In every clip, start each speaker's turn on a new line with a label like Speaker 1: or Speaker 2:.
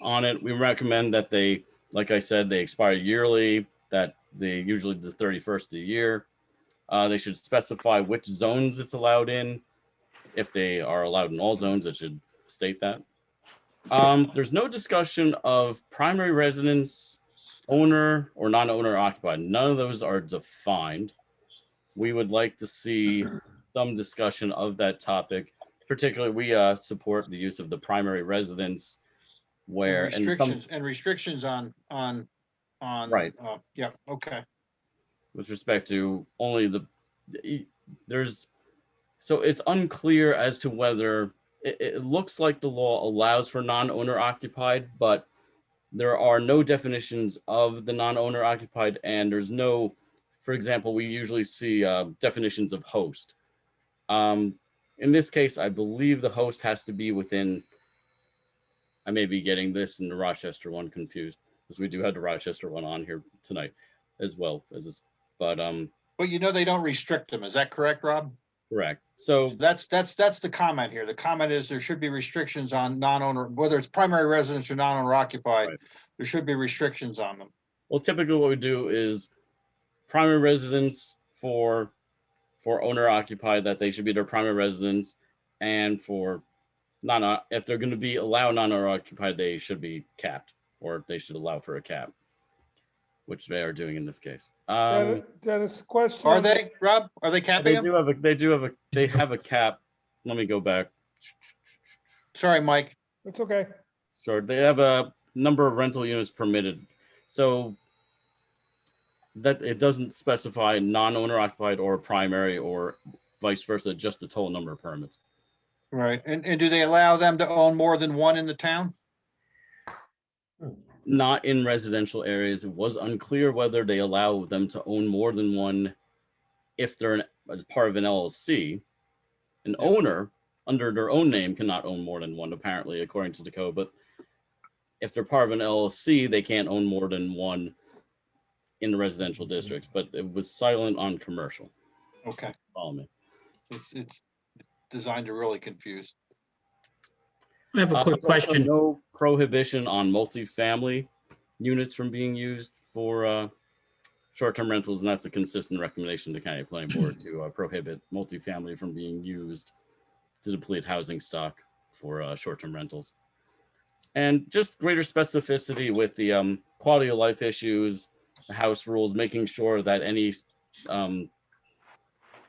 Speaker 1: on it. We recommend that they, like I said, they expire yearly, that they usually the 31st of the year. Uh, They should specify which zones it's allowed in. If they are allowed in all zones, it should state that. Um, There's no discussion of primary residence, owner or non-owner occupied. None of those are defined. We would like to see some discussion of that topic. Particularly, we uh, support the use of the primary residence where,
Speaker 2: And
Speaker 1: and some,
Speaker 2: Restrictions, and restrictions on, on, on.
Speaker 1: Right.
Speaker 2: uh, Yeah, okay,
Speaker 1: with respect to only the e- there's so it's unclear as to whether it, it looks like the law allows for non-owner occupied but there are no definitions of the non-owner occupied and there's no for example we usually see uh, definitions of host um, in this case i believe the host has to be within i may be getting this and the rochester one confused because we do have the rochester one on here tonight as well as this but um
Speaker 2: but you know, they don't restrict them, is that correct, Rob?
Speaker 1: correct so
Speaker 2: That's, that's, that's the comment here, the comment is there should be restrictions on non-owner, whether it's primary residence or non-owner occupied,
Speaker 1: Right.
Speaker 2: there should be restrictions on them.
Speaker 1: Well, typically what we do is primary residence for for owner occupied that they should be their primary residence, and for non uh, if they're going to be allowed non owner occupied, they should be capped or they should allow for a cap, which they are doing in this case. Um,
Speaker 3: Dennis- Dennis, question.
Speaker 2: Are they, Rob, are
Speaker 1: they
Speaker 2: they capping them?
Speaker 1: do have a they do have a they have a cap. Let me go back.
Speaker 2: Sorry, Mike,
Speaker 3: It's okay.
Speaker 1: Sure. They have a number of rental units permitted. So that it doesn't specify non-owner occupied or primary or vice versa, just the total number of permits.
Speaker 2: right, and, and do they allow them to own more than one in the town?
Speaker 1: Not in residential areas. It was unclear whether they allow them to own more than one if they're an- as part of an LLC. An owner under their own name cannot own more than one, apparently, according to the code. But if they're part of an LLC, they can't own more than one in the residential districts. But it was silent on commercial.
Speaker 2: Okay,
Speaker 1: Follow me.
Speaker 2: it's, it's designed to really confuse.
Speaker 4: I have a
Speaker 1: Uh,
Speaker 4: quick
Speaker 1: there's also
Speaker 4: question.
Speaker 1: No prohibition on multifamily units from being used for uh, short-term rentals, and that's a consistent recommendation to county planning board to uh, prohibit multifamily from being used to deplete housing stock for uh, short-term rentals. And just greater specificity with the um, quality of life issues, the house rules, making sure that any um,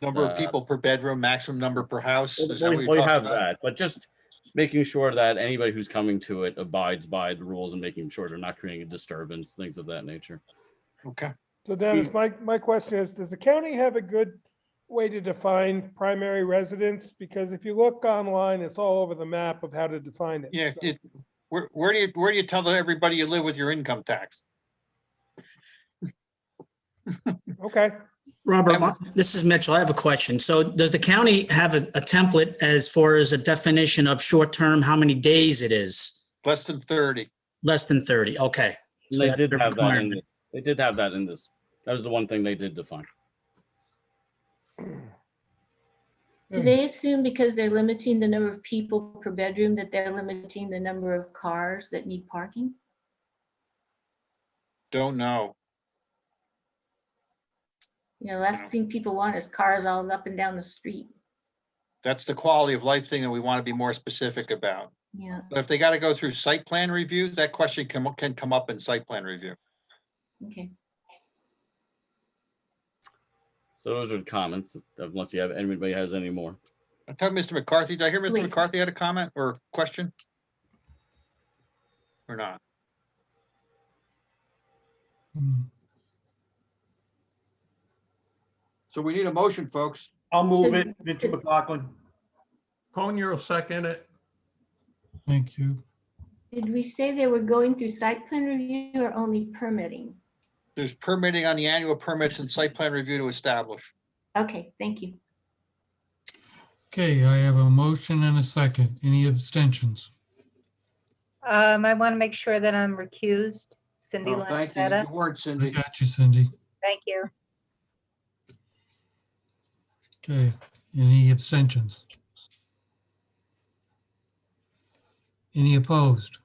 Speaker 2: Number
Speaker 1: Uh,
Speaker 2: of people per bedroom, maximum number per house?
Speaker 1: Well,
Speaker 2: is that what
Speaker 1: We
Speaker 2: you're
Speaker 1: we
Speaker 2: talking
Speaker 1: have
Speaker 2: about?
Speaker 1: that, but just making sure that anybody who's coming to it abides by the rules and making sure they're not creating a disturbance, things of that nature.
Speaker 2: Okay,
Speaker 3: So Dennis, my, my question is, does the county have a good way to define primary residence? Because if you look online, it's all over the map of how to define it.
Speaker 2: yeah,
Speaker 3: So-
Speaker 2: it, where, where do you, where do you tell everybody you live with your income tax?
Speaker 3: Okay,
Speaker 4: Robert, my- this is Mitchell. I have a question. So does the county have a, a template as far as a definition of short-term, how many days it is?
Speaker 2: Less than thirty.
Speaker 4: Less than 30, okay.
Speaker 1: And
Speaker 4: So
Speaker 1: They
Speaker 4: that's
Speaker 1: did
Speaker 4: the
Speaker 1: have that in,
Speaker 4: requirement.
Speaker 1: the- they did have that in this. That was the one thing they did define.
Speaker 5: Do
Speaker 3: Mm.
Speaker 5: they assume because they're limiting the number of people per bedroom that they're limiting the number of cars that need parking?
Speaker 2: Don't know.
Speaker 5: You know, last thing people want is cars all up and down the street.
Speaker 2: That's the quality of life thing that we want to be more specific about.
Speaker 5: Yeah,
Speaker 2: But if they got to go through site plan review, that question can, can come up in site plan review.
Speaker 5: okay.
Speaker 1: So those are the comments, unless you have, anybody has any more.
Speaker 2: I talked to Mr. McCarthy. Did I hear Mr.
Speaker 5: Wait.
Speaker 2: McCarthy had a comment or question? Or not? Hmm. So we need a motion, folks.
Speaker 6: I'll move
Speaker 5: Did-
Speaker 6: it, Mr. McLaughlin.
Speaker 7: Conyer will second it.
Speaker 8: Thank you.
Speaker 5: Did we say they were going through site plan review or only permitting?
Speaker 2: There's permitting on the annual permits and site plan review to establish.
Speaker 5: Okay, thank you.
Speaker 8: Okay, I have a motion and a second. Any abstentions?
Speaker 9: Um, I want to make sure that I'm recused. Cindy
Speaker 2: Oh, Thank you.
Speaker 9: Lanzetta,
Speaker 2: You weren't
Speaker 8: I
Speaker 2: Cindy.
Speaker 8: got you, Cindy.
Speaker 9: thank you.
Speaker 8: Okay, any abstentions? Any opposed?